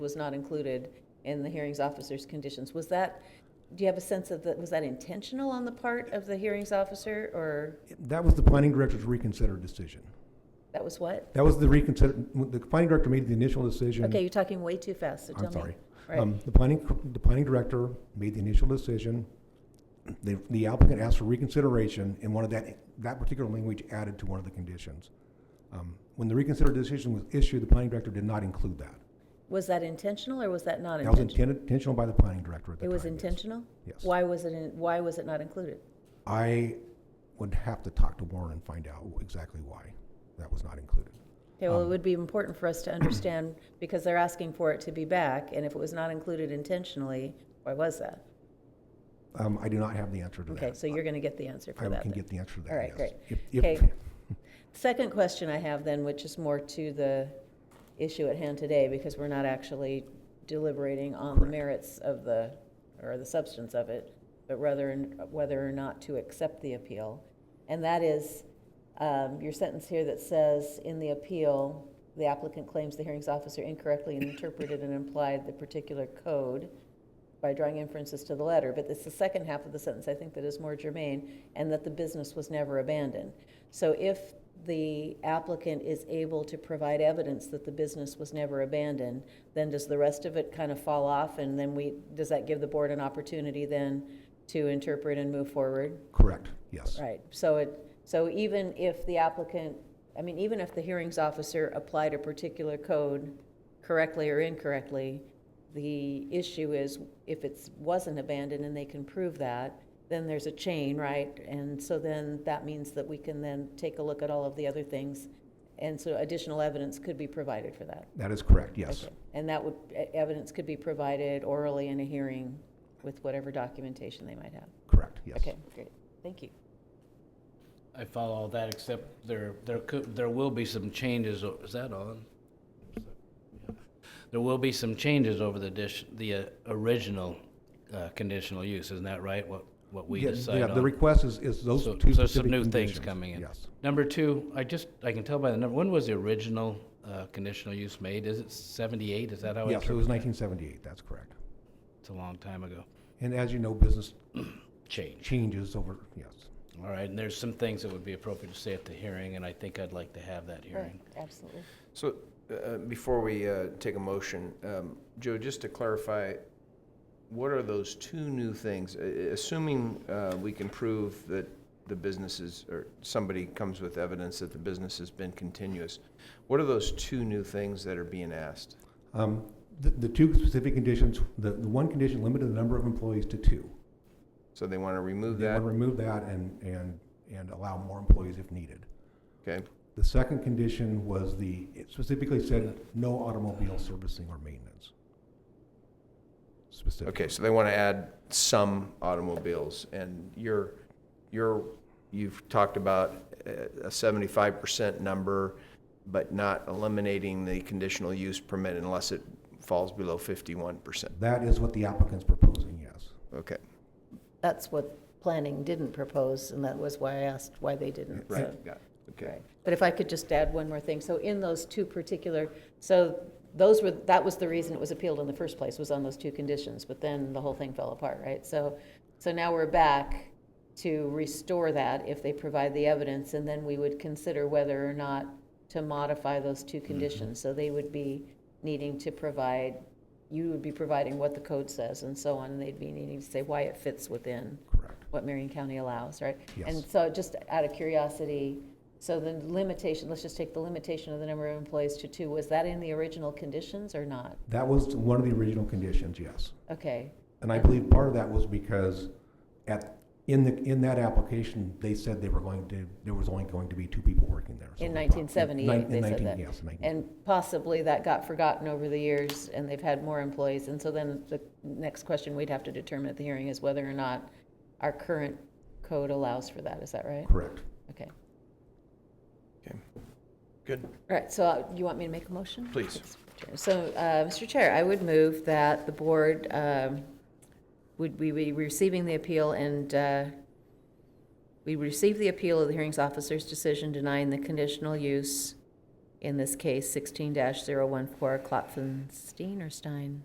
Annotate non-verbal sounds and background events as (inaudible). was not included in the hearings officer's conditions. Was that, do you have a sense of that, was that intentional on the part of the hearings officer, or That was the planning director's reconsidered decision. that was what? That was the reconsider, the planning director made the initial decision. Okay, you're talking way too fast, so tell me. I'm sorry. Right. Um, The planning, the planning director made the initial decision. The the applicant asked for reconsideration and wanted that, that particular language added to one of the conditions. Um, When the reconsidered decision was issued, the planning director did not include that. Was that intentional, or was that not That was intentional? intended, intentional by the planning director at the It time. was yes. intentional? Yes. Why was it, in- why was it not included? I would have to talk to Warren and find out exactly why that was not included. Okay, Um, well, it would be important for us to understand, because they're asking for it to be back, and if it was not included intentionally, why was that? Um, I do not have the answer to that. Okay, so you're going to get the answer for I that can then. get the answer to that, All right, yes. great. If- if- Okay. Second question I have then, which is more to the issue at hand today, because we're not actually deliberating on the Correct. merits of the, or the substance of it, but rather, in- whether or not to accept the appeal. And that is, um, your sentence here that says, in the appeal, the applicant claims the hearings officer incorrectly interpreted and implied the particular code by drawing inferences to the letter, but it's the second half of the sentence, I think, that is more germane, and that the business was never abandoned. So if the applicant is able to provide evidence that the business was never abandoned, then does the rest of it kind of fall off, and then we, does that give the board an opportunity then to interpret and move forward? Correct, yes. Right, so it, so even if the applicant, I mean, even if the hearings officer applied a particular code correctly or incorrectly, the issue is if it wasn't abandoned and they can prove that, then there's a chain, right? And so then that means that we can then take a look at all of the other things. And so additional evidence could be provided for that. That is correct, yes. Okay. And that would, e- evidence could be provided orally in a hearing with whatever documentation they might have. Correct, yes. Okay, great, thank you. I follow all that, except there, there could, there will be some changes, o- is that on? There will be some changes over the dish, the uh, original uh, conditional use, isn't that right? What, what we Yeah, decide Yeah, the on? request is, is those So- two so some specific new things conditions, coming in. Yes. Number two, I just, I can tell by the number, when was the original uh, conditional use made? Is it seventy-eight? Is that how? I Yes, it was interpret that? 1978, that's correct. It's a long time ago. And as you know, (clears throat) business Change. changes over, yes. All right, and there's some things that would be appropriate to say at the hearing, and I think I'd like to have that hearing. Absolutely. So, uh, before we uh, take a motion, um, Joe, just to clarify, what are those two new things? A- a- Assuming uh, we can prove that the businesses, or somebody comes with evidence that the business has been continuous, what are those two new things that are being asked? Um, The, the two specific conditions, the, the one condition limited the number of employees to two. So they want to remove They want that, to remove that and, and, and allow more employees if needed. okay? The second condition was the, it specifically said, no automobile servicing or maintenance. Specifically. Okay, so they want to add some automobiles, and you're, you're, you've talked about uh, a seventy-five percent number, but not eliminating the conditional use permit unless it falls below fifty-one percent. That is what the applicant's proposing, yes. Okay, That's what planning didn't propose, and that was why I asked why they didn't. so- right, got it, okay. Right. But if I could just add one more thing, so in those two particular, so those were, that was the reason it was appealed in the first place, was on those two conditions, but then the whole thing fell apart, right? So, so now we're back to restore that if they provide the evidence, and then we would consider whether or not to modify those two conditions. So they would be needing to provide, you would be providing what the code says and so on, and they'd be needing to say why it fits within Correct. what Marion County allows, right? And Yes. so just out of curiosity, so the limitation, let's just take the limitation of the number of employees to two, was that in the original conditions or not? That was one of the original conditions, yes. Okay, And I believe part of that was because at, in the, in that application, they said they were going to, there was only going to be two people working there. So in they brought- nineteen nine- seventy-eight, in they 19 said that. Yes, in 19 And possibly that got forgotten over the years, and they've had more employees, and so then the next question we'd have to determine at the hearing is whether or not our current code allows for that, is that right? correct. Okay, Good. all right, so uh, you want me to make a motion? Please. So, uh, Mr. Chair, I would move that the board um, would we be receiving the appeal and uh, we receive the appeal of the hearings officer's decision denying the conditional use in this case, sixteen 14 Klopfenstein or Stein?